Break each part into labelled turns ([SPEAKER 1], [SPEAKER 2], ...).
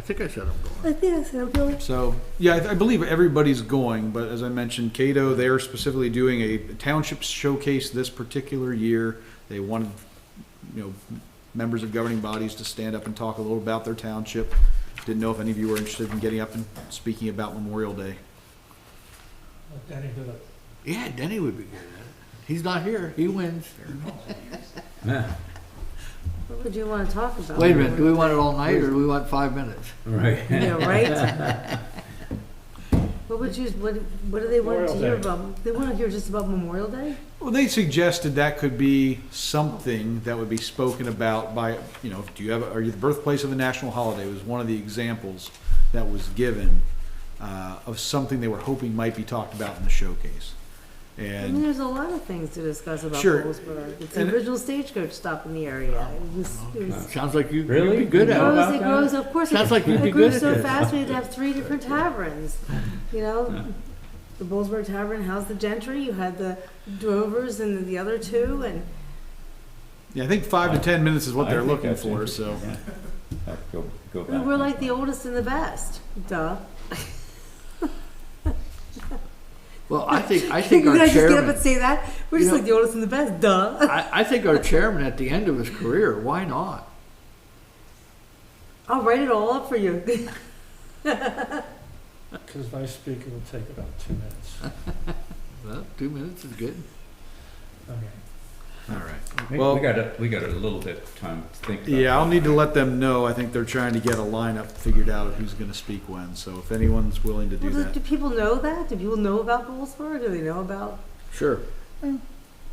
[SPEAKER 1] think I said I'm going.
[SPEAKER 2] I think I said, I'm going.
[SPEAKER 3] So, yeah, I, I believe everybody's going, but as I mentioned, Cato, they're specifically doing a township showcase this particular year. They wanted, you know, members of governing bodies to stand up and talk a little about their township. Didn't know if any of you were interested in getting up and speaking about Memorial Day.
[SPEAKER 4] Danny did a
[SPEAKER 1] Yeah, Denny would be good. at it. He's not here. He wins.
[SPEAKER 5] Yeah,
[SPEAKER 2] What would you want to talk about?
[SPEAKER 6] Wait a minute, do we want it all night or do we want five minutes?
[SPEAKER 5] right.
[SPEAKER 2] Yeah, right? What would you, what, what do they want to
[SPEAKER 4] Memorial
[SPEAKER 2] hear
[SPEAKER 4] Day.
[SPEAKER 2] about? They want to hear just about Memorial Day?
[SPEAKER 3] Well, they suggested that could be something that would be spoken about by, you know, do you have, are you the birthplace of a national holiday was one of the examples that was given uh, of something they were hoping might be talked about in the showcase.
[SPEAKER 2] I
[SPEAKER 3] And
[SPEAKER 2] mean, there's a lot of things to discuss about
[SPEAKER 3] Sure.
[SPEAKER 2] Goldsboro. It's the
[SPEAKER 3] And-
[SPEAKER 2] original stagecoach stop in the area. It was, it was
[SPEAKER 6] Sounds like you, you'd
[SPEAKER 5] Really?
[SPEAKER 6] be good
[SPEAKER 2] It
[SPEAKER 6] at
[SPEAKER 5] How
[SPEAKER 6] it.
[SPEAKER 2] grows,
[SPEAKER 5] about
[SPEAKER 2] it
[SPEAKER 5] that?
[SPEAKER 2] grows, of course.
[SPEAKER 6] Sounds
[SPEAKER 2] it-
[SPEAKER 6] like you'd be
[SPEAKER 2] It grew
[SPEAKER 6] good at
[SPEAKER 2] so
[SPEAKER 6] this.
[SPEAKER 2] fast, we had to have three different taverns, you know? The Bullsburg Tavern housed the gentry, you had the drovers and the other two, and
[SPEAKER 3] yeah, I think five to 10 minutes is what
[SPEAKER 5] I
[SPEAKER 3] they're
[SPEAKER 5] think
[SPEAKER 3] looking
[SPEAKER 5] that's
[SPEAKER 3] for, so.
[SPEAKER 5] interesting, yeah. Go, go
[SPEAKER 2] we
[SPEAKER 5] back.
[SPEAKER 2] were like the oldest and the best, duh.
[SPEAKER 6] Well, I think, I
[SPEAKER 2] Can
[SPEAKER 6] think
[SPEAKER 2] you
[SPEAKER 6] our
[SPEAKER 2] guys just get up
[SPEAKER 6] chairman,
[SPEAKER 2] and say that? We're
[SPEAKER 6] You
[SPEAKER 2] just
[SPEAKER 6] know-
[SPEAKER 2] like the oldest and the best, duh.
[SPEAKER 6] I, I think our chairman at the end of his career, why not?
[SPEAKER 2] I'll write it all up for you.
[SPEAKER 4] Because my speaker will take about two minutes.
[SPEAKER 6] Well, two minutes is good.
[SPEAKER 4] Okay.
[SPEAKER 3] All right.
[SPEAKER 5] We
[SPEAKER 3] Well-
[SPEAKER 5] we got a, we got a little bit of time to think about it.
[SPEAKER 3] Yeah, I'll need to let them know. I think they're trying to get a lineup figured out of who's going to speak when. So if anyone's willing to do
[SPEAKER 2] Well, do- Do
[SPEAKER 3] that,
[SPEAKER 2] people know that? Do people know about Goldsboro? Do they know about?
[SPEAKER 6] Sure.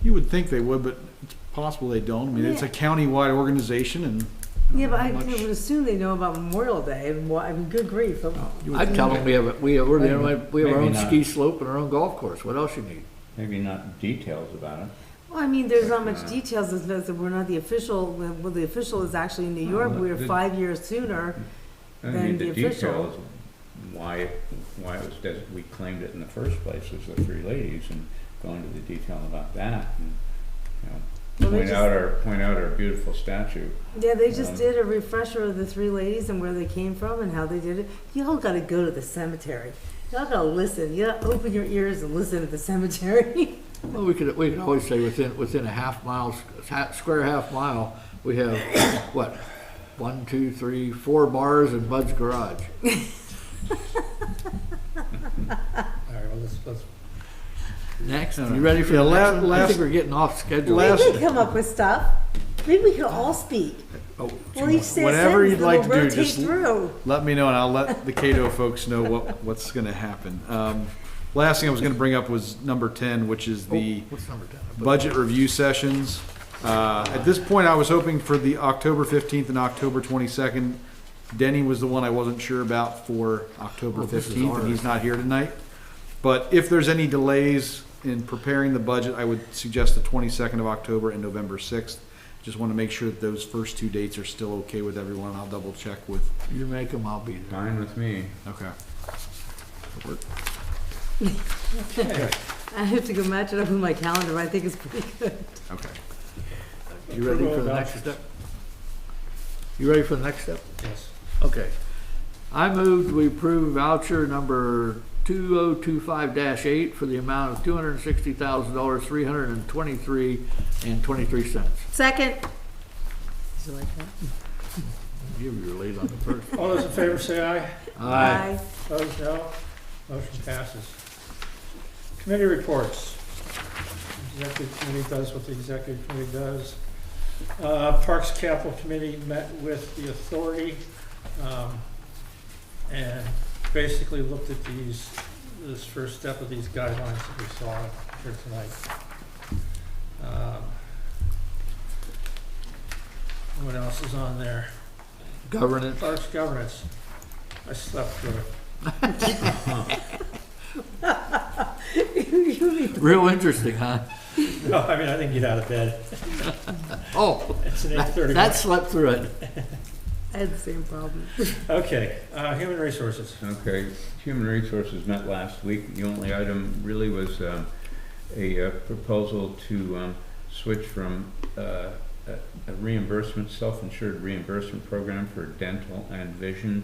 [SPEAKER 3] you would think they would, but it's possible they don't. I mean, it's a county-wide organization and.
[SPEAKER 2] Yeah, but I
[SPEAKER 3] Much-
[SPEAKER 2] would assume they know about Memorial Day and why, I mean, good grief. I'm-
[SPEAKER 3] you would
[SPEAKER 6] I'd
[SPEAKER 3] think.
[SPEAKER 6] tell him we have, a- we have, we're the only- we have our own
[SPEAKER 5] Maybe not.
[SPEAKER 6] ski slope and our own golf course. What else you need?
[SPEAKER 5] Maybe not details about it.
[SPEAKER 2] Well, I mean, there's not much details as as we're not the official, well, the official is actually in
[SPEAKER 6] Oh,
[SPEAKER 2] New York,
[SPEAKER 5] Well,
[SPEAKER 2] we are
[SPEAKER 5] the-
[SPEAKER 2] five years sooner.
[SPEAKER 5] I
[SPEAKER 2] Then
[SPEAKER 5] mean,
[SPEAKER 2] the
[SPEAKER 5] the
[SPEAKER 2] official-
[SPEAKER 5] details, why, why it was, des- we claimed it in the first place was the three ladies and go into the detail about that and, you
[SPEAKER 2] Well,
[SPEAKER 5] know,
[SPEAKER 2] they
[SPEAKER 5] point
[SPEAKER 2] just-
[SPEAKER 5] out our, point out our beautiful statue.
[SPEAKER 2] Yeah, they just
[SPEAKER 5] Um,
[SPEAKER 2] did a refresher of the three ladies and where they came from and how they did it. Y'all gotta go to the cemetery. Y'all gotta listen, you gotta open your ears and listen at the cemetery.
[SPEAKER 6] Well, we could, we could always say within, within a half mile, s- ha- square half mile, we have, what? One, two, three, four bars and Bud's Garage.
[SPEAKER 4] All right, well, let's, let's,
[SPEAKER 6] Next, you ready for
[SPEAKER 3] Yeah,
[SPEAKER 6] the
[SPEAKER 3] la-
[SPEAKER 6] last one? I
[SPEAKER 3] last-
[SPEAKER 6] think we're getting off schedule.
[SPEAKER 2] Maybe
[SPEAKER 3] Last-
[SPEAKER 2] we can come up with stuff. Maybe we could all speak.
[SPEAKER 3] Oh,
[SPEAKER 2] We'll each say a
[SPEAKER 3] Whatever
[SPEAKER 2] sentence
[SPEAKER 3] you'd
[SPEAKER 2] and
[SPEAKER 3] like
[SPEAKER 2] we'll
[SPEAKER 3] to do,
[SPEAKER 2] rotate
[SPEAKER 3] just
[SPEAKER 2] through.
[SPEAKER 3] let me know and I'll let the Cato folks know what, what's going to happen. Um, Last thing I was going to bring up was number 10, which is the
[SPEAKER 6] Oh, What's number ten?
[SPEAKER 3] budget review sessions. Uh, At this point, I was hoping for the October 15th and October 22nd. Denny was the one I wasn't sure about for October
[SPEAKER 6] Oh, this is
[SPEAKER 3] 15th, and he's not here tonight. But if there's any delays in preparing the budget, I would suggest the 22nd of October and November 6th. Just want to make sure that those first two dates are still okay with everyone. I'll double check with,
[SPEAKER 6] You make them, I'll be there.
[SPEAKER 5] Fine with me.
[SPEAKER 3] okay.
[SPEAKER 2] I have to go match it up with my calendar, but I think it's pretty good.
[SPEAKER 3] Okay.
[SPEAKER 6] You ready for the
[SPEAKER 4] Approval of
[SPEAKER 6] next
[SPEAKER 4] vouchers.
[SPEAKER 6] step? You ready for the next step?
[SPEAKER 4] yes.
[SPEAKER 6] Okay. I moved we approve voucher number two oh two five eight for the amount of two hundred and sixty thousand dollars, three hundred and twenty-three and twenty-three cents.
[SPEAKER 2] Second. Did you like that?
[SPEAKER 6] You were late on the first.
[SPEAKER 4] All those in favor say aye.
[SPEAKER 6] Aye.
[SPEAKER 4] Opposed, no. Motion passes. Committee reports. Executive committee does what the executive committee does. Uh, Parks Capital Committee met with the authority, um, and basically looked at these, this first step of these guidelines that we saw here tonight. Um, What else is on there?
[SPEAKER 6] Governance.
[SPEAKER 4] Parks governance. I slept through it.
[SPEAKER 6] Real interesting, huh?
[SPEAKER 4] No, I mean, I didn't get out of bed.
[SPEAKER 6] Oh,
[SPEAKER 4] It's an eight thirty.
[SPEAKER 6] that slept through it.
[SPEAKER 2] I had the same problem.
[SPEAKER 4] Okay, uh, human resources.
[SPEAKER 5] Okay, Human Resources met last week. The only item really was um, a uh, proposal to um, switch from uh, a a reimbursement, self-insured reimbursement program for dental and vision